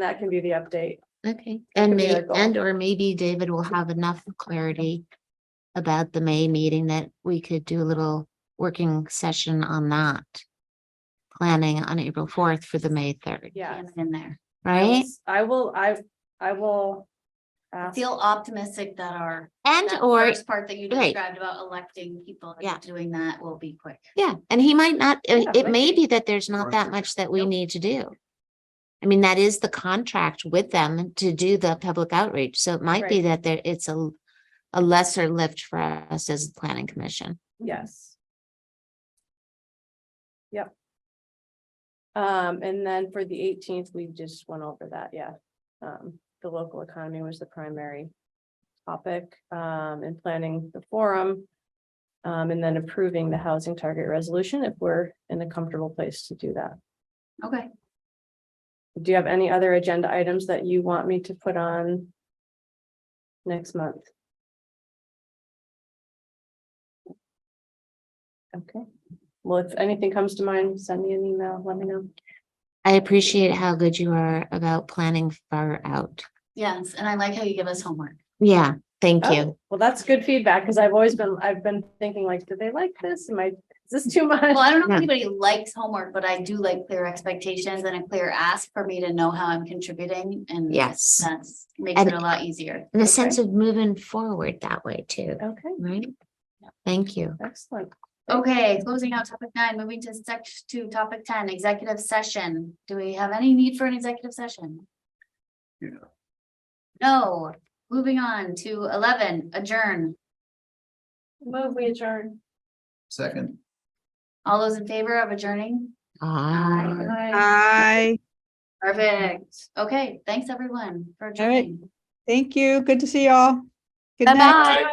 That can be the update. Okay, and could be may, our goal. and or maybe David will have enough clarity about the May meeting that we could do a little working session on that. Planning on April fourth for the May third, Yes. in there. right? I will, I, I will. I ask- Feel optimistic that our. And that or, first Part that you right. described about electing people. and Yeah. Doing that will be quick. yeah, and he might not, it Yeah, it like- may be that there's not Right. that much that we need to do. I mean, that is the contract with them to do the public outreach, so it might be Right. that there, it's a a lesser lift for us as a planning commission. Yes. Yep. Um, and then for the eighteenth, we just went over that, yeah. Um, the local economy was the primary topic, um, in planning the forum. Um, and then approving the housing target resolution if we're in a comfortable place to do that. Okay. Do you have any other agenda items that you want me to put on? Next month? Okay, well, if anything comes to mind, send me an email, let me know. I appreciate how good you are about planning far out. Yes, and I like how you give us homework. Yeah, thank you. Oh, Well, that's good feedback, because I've always been, I've been thinking like, do they like this? Am I, is this too much? Well, I don't know Yeah. if anybody likes homework, but I do like clear expectations and a clear ask for me to know how I'm contributing and. Yes. That's makes And- it a lot easier. And a sense of moving forward that way too, Okay, right? Thank you. excellent. Okay, closing out topic nine, moving to section to topic ten, executive session. Do we have any need for an executive session? Yeah. No, moving on to eleven, adjourn. Move, we adjourn. Second. All those in favor of adjourning? Ah. Hi, Perfect. Okay, thanks everyone for All right. adjourning. thank you. Good to see y'all. Good night. Bye-bye.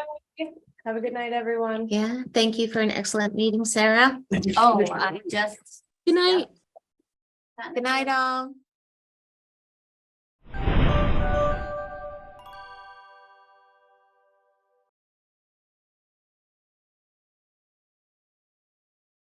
Have a good night, everyone. Yeah, thank you for an excellent meeting, Sarah. Oh, I just. Good night. Good night, all.